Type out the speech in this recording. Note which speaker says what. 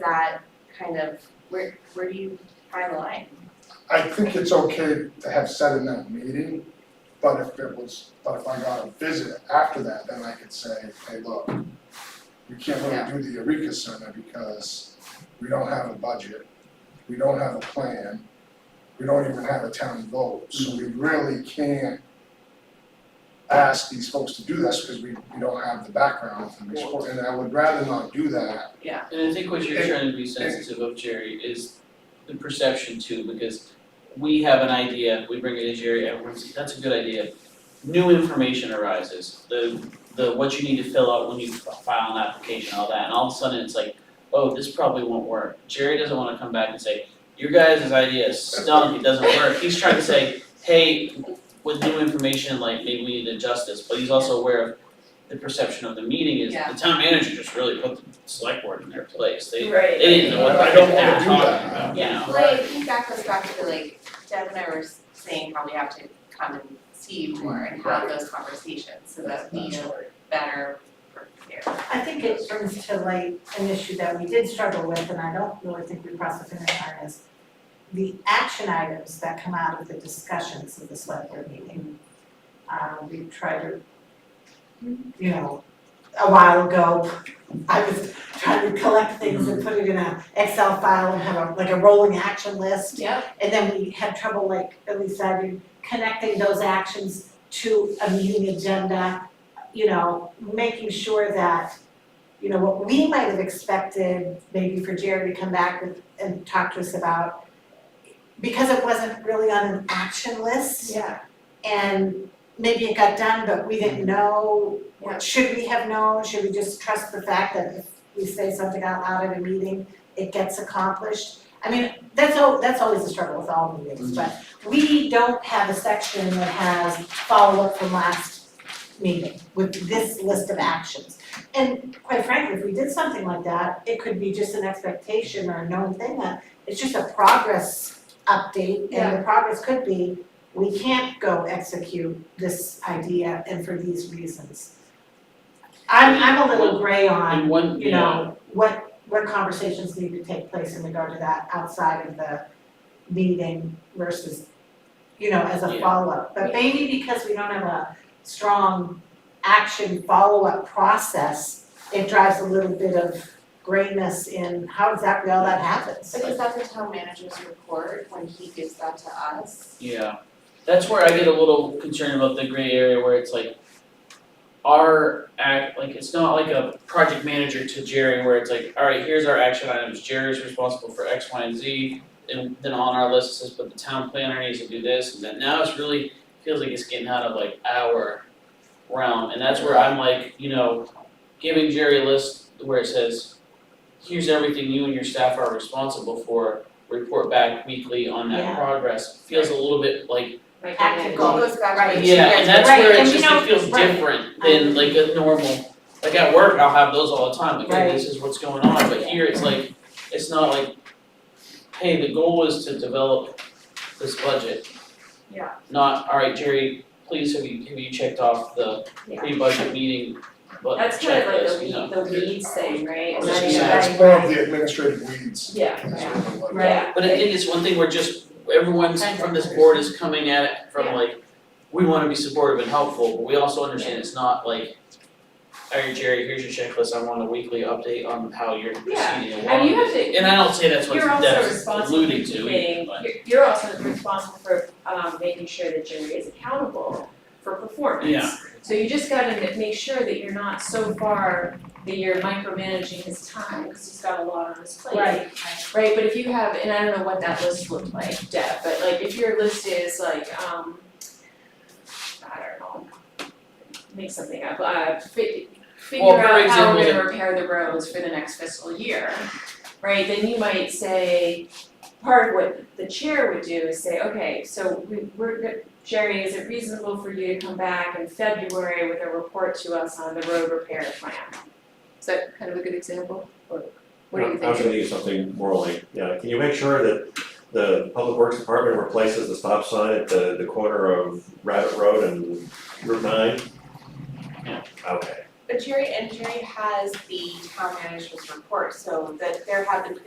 Speaker 1: that kind of, where, where do you find the line?
Speaker 2: I think it's okay to have said in that meeting, but if it was, but if I got a visit after that, then I could say, hey, look, you can't
Speaker 1: Yeah.
Speaker 2: really do the Eureka Center because we don't have a budget, we don't have a plan, we don't even have a town vote, so we really can't ask these folks to do this because we, we don't have the background from the sport, and I would rather not do that.
Speaker 3: And I think what you're
Speaker 2: And-
Speaker 3: trying to be sensitive of, Jerry, is the perception too, because we have an idea, we bring it to Jerry, everyone's, that's a good idea. New information arises, the, the, what you need to fill out when you file an application, all that, and all of a sudden it's like, oh, this probably won't work. Jerry doesn't wanna come back and say, your guys' idea stunk, it doesn't work, he's trying to say, hey, with new information, like, maybe we need to adjust this, but he's also aware of the perception of the meeting is,
Speaker 1: Yeah.
Speaker 3: the town manager just really put the select board in their place, they,
Speaker 1: Right.
Speaker 3: they didn't know what
Speaker 2: I
Speaker 3: the
Speaker 2: don't
Speaker 3: heck they
Speaker 2: wanna
Speaker 3: were
Speaker 2: do
Speaker 3: talking
Speaker 2: that.
Speaker 3: about, you know?
Speaker 1: Well, I think that goes back to like Deb and I were saying how we have to come and see you more and have those conversations so that we
Speaker 2: That's
Speaker 1: know
Speaker 2: right.
Speaker 1: better prepared.
Speaker 4: I think it brings to light an issue that we did struggle with, and I don't really think we processed it in earnest. The action items that come out of the discussions of the select board meeting. Uh, we tried to, you know, a while ago, I was trying to collect things and put it in a Excel file and have a, like a rolling action list.
Speaker 1: Yep.
Speaker 4: And then we had trouble, like at least I did, connecting those actions to a meeting agenda, you know, making sure that, you know, what we might have expected maybe for Jared to come back with and talk to us about, because it wasn't really on an action list
Speaker 1: Yeah.
Speaker 4: and maybe it got done, but we didn't know,
Speaker 1: Yeah.
Speaker 4: should we have known, should we just trust the fact that if we say something out loud at a meeting, it gets accomplished? I mean, that's al- that's always a struggle with all meetings, but we don't have a section that has follow-up from last meeting with this list of actions. And quite frankly, if we did something like that, it could be just an expectation or a known thing, uh, it's just a progress update, and the progress could be, we can't go execute this idea and for these reasons. I'm I'm a little gray
Speaker 3: And
Speaker 4: on,
Speaker 3: one,
Speaker 4: you know, what what conversations need to take place in regard to that outside of the meeting versus, you know, as a
Speaker 3: Yeah.
Speaker 4: follow-up. But maybe because we don't have a strong action follow-up process, it drives a little bit of grayness in how exactly all that happens.
Speaker 1: But is that the town manager's report when he gives that to us?
Speaker 3: Yeah, that's where I get a little concerned about the gray area where it's like our act, like it's not like a project manager to Jerry where it's like, alright, here's our action items, Jerry's responsible for X, Y, and Z. And then on our list it says, but the town planner needs to do this, and then now it's really, feels like it's getting out of like our realm, and that's where I'm like, you know, giving Jerry a list where it says, here's everything you and your staff are responsible for, report back weekly on that
Speaker 4: Yeah.
Speaker 3: progress, feels a little bit like,
Speaker 1: Like, it
Speaker 4: Tactical.
Speaker 1: all goes back to
Speaker 4: Right.
Speaker 1: like,
Speaker 3: yeah,
Speaker 1: you guys-
Speaker 3: and that's
Speaker 4: right,
Speaker 3: where it
Speaker 4: and
Speaker 3: just,
Speaker 4: you know,
Speaker 3: it feels
Speaker 4: right.
Speaker 3: different than like a normal, like at work, I'll have those all the time, like, hey, this is what's going on, but here it's like, it's not like, hey, the goal is to develop this budget.
Speaker 1: Yeah.
Speaker 3: Not, alright, Jerry, please have you, have you checked off the
Speaker 1: Yeah.
Speaker 3: pre-budget meeting, but
Speaker 5: That's kind of like
Speaker 3: checklist, you know?
Speaker 5: the weed, the weeds thing, right?
Speaker 2: It's
Speaker 3: Right,
Speaker 2: it's more of the administrative weeds.
Speaker 5: Yeah,
Speaker 2: That's what I like.
Speaker 5: Right.
Speaker 3: But I think it's one thing where just everyone's from this board is coming at it from
Speaker 5: Yeah.
Speaker 3: like, we wanna be supportive and helpful, but we also understand it's not like, alright, Jerry, here's your checklist, I want a weekly update on how you're
Speaker 5: Yeah.
Speaker 3: proceeding along.
Speaker 5: And you have to,
Speaker 3: And I don't say that's what
Speaker 5: you're also
Speaker 3: that's
Speaker 5: responsible for
Speaker 3: alluding to,
Speaker 5: keeping,
Speaker 3: but-
Speaker 5: you're, you're also responsible for, um, making sure that Jerry is accountable for performance.
Speaker 3: Yeah.
Speaker 5: So you just gotta ma- make sure that you're not so far that you're micromanaging his time, because he's got a lot on his plate.
Speaker 4: Right,
Speaker 5: Right, but if you have, and I don't know what that list looked like, Deb, but like if your list is like, um, I don't know, make something up, uh, fi- figure
Speaker 3: Well, for
Speaker 5: out how we're
Speaker 3: example,
Speaker 5: gonna repair the roads for the next fiscal year, right, then you might say, part of what the chair would do is say, okay, so we, we're, go- Jerry, is it reasonable for you to come back in February with a report to us on the road repair plan? Is that kind of a good example, or what do you think?
Speaker 6: I was gonna use something more like, yeah, can you make sure that the Public Works Department replaces the stop sign at the, the corner of Rabbit Road and Route nine?
Speaker 3: Yeah.
Speaker 6: Okay,
Speaker 5: But Jerry, and Jerry has the town manager's report, so that there have been